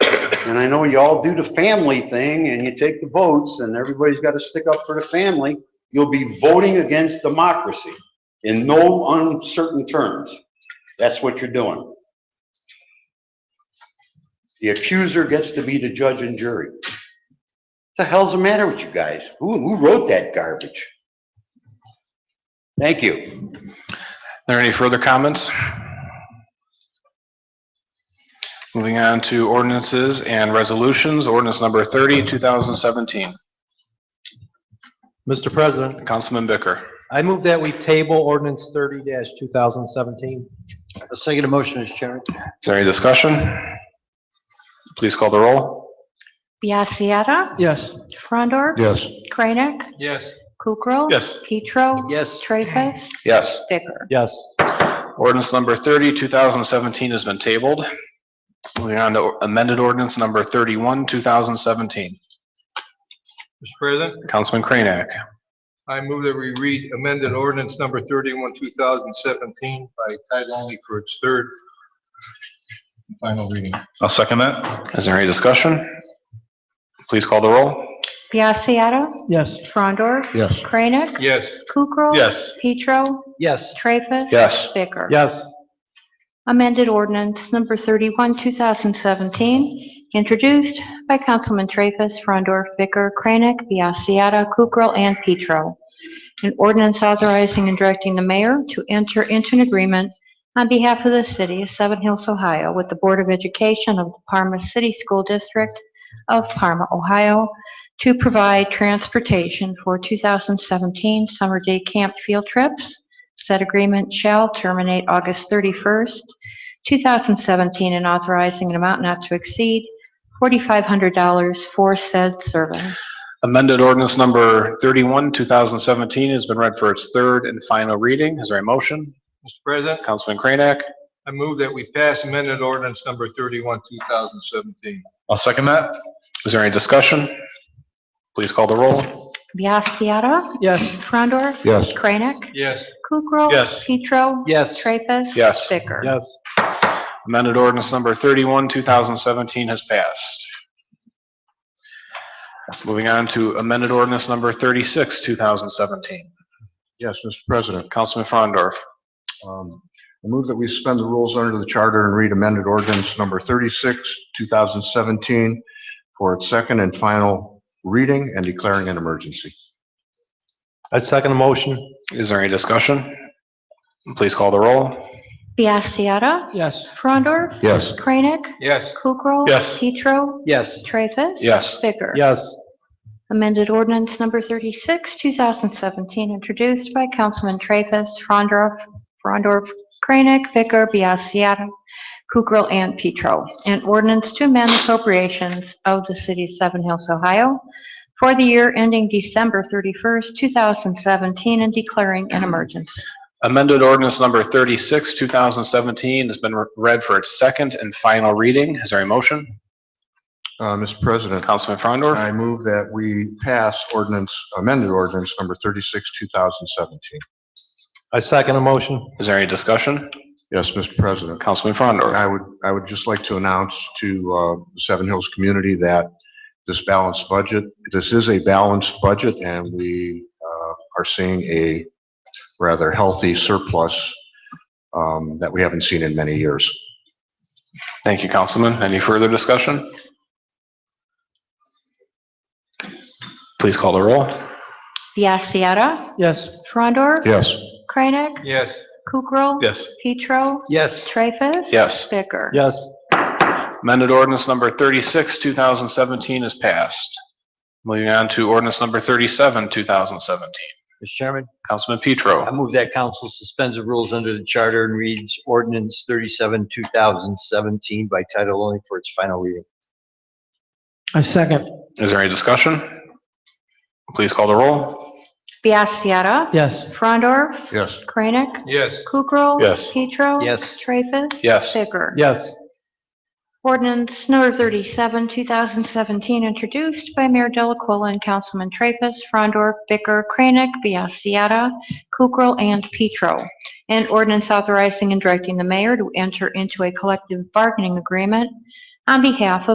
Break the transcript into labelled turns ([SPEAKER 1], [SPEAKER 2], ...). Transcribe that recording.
[SPEAKER 1] And I know y'all do the family thing and you take the votes and everybody's got to stick up for the family. You'll be voting against democracy in no uncertain terms. That's what you're doing. The accuser gets to be the judge and jury. The hell's the matter with you guys? Who, who wrote that garbage? Thank you.
[SPEAKER 2] There any further comments? Moving on to ordinances and resolutions, ordinance number 30, 2017.
[SPEAKER 3] Mr. President,
[SPEAKER 2] Councilman Bicker.
[SPEAKER 3] I move that we table ordinance thirty two thousand seventeen.
[SPEAKER 4] A second motion, Mr. Chairman.
[SPEAKER 2] Is there any discussion? Please call the roll.
[SPEAKER 5] Biassiata.
[SPEAKER 4] Yes.
[SPEAKER 5] Frondor.
[SPEAKER 1] Yes.
[SPEAKER 5] Kranek.
[SPEAKER 4] Yes.
[SPEAKER 5] Kukrow.
[SPEAKER 2] Yes.
[SPEAKER 5] Petro.
[SPEAKER 4] Yes.
[SPEAKER 5] Treffus.
[SPEAKER 2] Yes.
[SPEAKER 5] Bicker.
[SPEAKER 3] Yes.
[SPEAKER 2] Ordinance number 30, 2017 has been tabled. Moving on to amended ordinance number 31, 2017.
[SPEAKER 6] Mr. President,
[SPEAKER 2] Councilman Kranek.
[SPEAKER 6] I move that we read amended ordinance number 31, 2017 by title only for its third and final reading.
[SPEAKER 2] I'll second that. Is there any discussion? Please call the roll.
[SPEAKER 5] Biassiata.
[SPEAKER 4] Yes.
[SPEAKER 5] Frondor.
[SPEAKER 1] Yes.
[SPEAKER 5] Kranek.
[SPEAKER 6] Yes,
[SPEAKER 5] Kukrow.
[SPEAKER 2] Yes.
[SPEAKER 5] Petro.
[SPEAKER 3] Yes.
[SPEAKER 5] Treffus.
[SPEAKER 2] Yes.
[SPEAKER 5] Bicker.
[SPEAKER 3] Yes.
[SPEAKER 5] Amended ordinance number 31, 2017, introduced by Councilman Traffus, Frondor, Bicker, Kranek, Biassiata, Kukrow, and Petro. An ordinance authorizing and directing the mayor to enter into an agreement on behalf of the city of Seven Hills, Ohio, with the Board of Education of the Parma City School District of Parma, Ohio, to provide transportation for 2017 summer day camp field trips Said agreement shall terminate August 31st, 2017, and authorizing an amount not to exceed $4,500 for said service.
[SPEAKER 2] Amended ordinance number 31, 2017 has been read for its third and final reading. Is there a motion?
[SPEAKER 6] Mr. President,
[SPEAKER 2] Councilman Kranek.
[SPEAKER 6] I move that we pass amended ordinance number 31, 2017.
[SPEAKER 2] I'll second that. Is there any discussion? Please call the roll.
[SPEAKER 5] Biassiata.
[SPEAKER 3] Yes.
[SPEAKER 5] Frondor.
[SPEAKER 1] Yes.
[SPEAKER 5] Kranek.
[SPEAKER 6] Yes,
[SPEAKER 5] Kukrow.
[SPEAKER 2] Yes.
[SPEAKER 5] Petro.
[SPEAKER 3] Yes.
[SPEAKER 5] Traffus.
[SPEAKER 2] Yes.
[SPEAKER 5] Bicker.
[SPEAKER 3] Yes.
[SPEAKER 2] Amended ordinance number 31, 2017 has passed. Moving on to amended ordinance number 36, 2017.
[SPEAKER 7] Yes, Mr. President.
[SPEAKER 2] Councilman Frondorf.
[SPEAKER 7] Um, I move that we suspend the rules under the charter and read amended ordinance number 36, 2017, for its second and final reading and declaring an emergency.
[SPEAKER 3] I second the motion.
[SPEAKER 2] Is there any discussion? Please call the roll.
[SPEAKER 5] Biassiata.
[SPEAKER 3] Yes.
[SPEAKER 5] Frondor.
[SPEAKER 7] Yes.
[SPEAKER 5] Kranek.
[SPEAKER 6] yes,
[SPEAKER 5] Kukrow.
[SPEAKER 2] Yes.
[SPEAKER 5] Petro.
[SPEAKER 3] Yes.
[SPEAKER 5] Traffus.
[SPEAKER 2] Yes.
[SPEAKER 5] Bicker.
[SPEAKER 3] Yes.
[SPEAKER 5] Amended ordinance number 36, 2017, introduced by Councilman Traffus, Frondorf, Frondorf, Kranek, Vicker, Biassiata, Kukrow, and Petro. An ordinance to amend appropriations of the city of Seven Hills, Ohio for the year ending December 31st, 2017, and declaring an emergency.
[SPEAKER 2] Amended ordinance number 36, 2017 has been read for its second and final reading. Is there a motion?
[SPEAKER 7] Uh, Mr. President,
[SPEAKER 2] Councilman Frondor.
[SPEAKER 7] I move that we pass ordinance, amended ordinance number 36, 2017.
[SPEAKER 3] I second the motion.
[SPEAKER 2] Is there any discussion?
[SPEAKER 7] Yes, Mr. President.
[SPEAKER 2] Councilman Frondor.
[SPEAKER 7] I would, I would just like to announce to uh, the Seven Hills community that this balanced budget, this is a balanced budget, and we uh, are seeing a rather healthy surplus um, that we haven't seen in many years.
[SPEAKER 2] Thank you, Councilman. Any further discussion? Please call the roll.
[SPEAKER 5] Biassiata,
[SPEAKER 3] Yes.
[SPEAKER 5] Frondor,
[SPEAKER 7] Yes.
[SPEAKER 5] Kranek,
[SPEAKER 6] yes,
[SPEAKER 5] Kukrow,
[SPEAKER 2] Yes.
[SPEAKER 5] Petro,
[SPEAKER 3] Yes.
[SPEAKER 5] Traffus.
[SPEAKER 2] Yes.
[SPEAKER 5] Bicker.
[SPEAKER 3] Yes.
[SPEAKER 2] Amended ordinance number 36, 2017 is passed. Moving on to ordinance number 37, 2017.
[SPEAKER 4] Mr. Chairman,
[SPEAKER 2] Councilman
[SPEAKER 4] I
[SPEAKER 2] Petro.
[SPEAKER 4] move that council suspends the rules under the charter and reads ordinance 37, 2017 by title only for its final reading.
[SPEAKER 3] I second.
[SPEAKER 2] Is there any discussion? Please call the roll.
[SPEAKER 5] Biassiata,
[SPEAKER 3] Yes.
[SPEAKER 5] Frondor,
[SPEAKER 7] Yes.
[SPEAKER 5] Kranek,
[SPEAKER 6] yes,
[SPEAKER 5] Kukrow.
[SPEAKER 2] Yes.
[SPEAKER 5] Petro.
[SPEAKER 4] Yes.
[SPEAKER 5] Traffus.
[SPEAKER 2] Yes.
[SPEAKER 5] Bicker.
[SPEAKER 3] Yes.
[SPEAKER 5] Ordinance number 37, 2017, introduced by Mayor Delacola and Councilman Traffus, Frondor, Bicker, Kranek, Biassiata, Kukrow, and Petro. An ordinance authorizing and directing the mayor to enter into a collective bargaining agreement on behalf of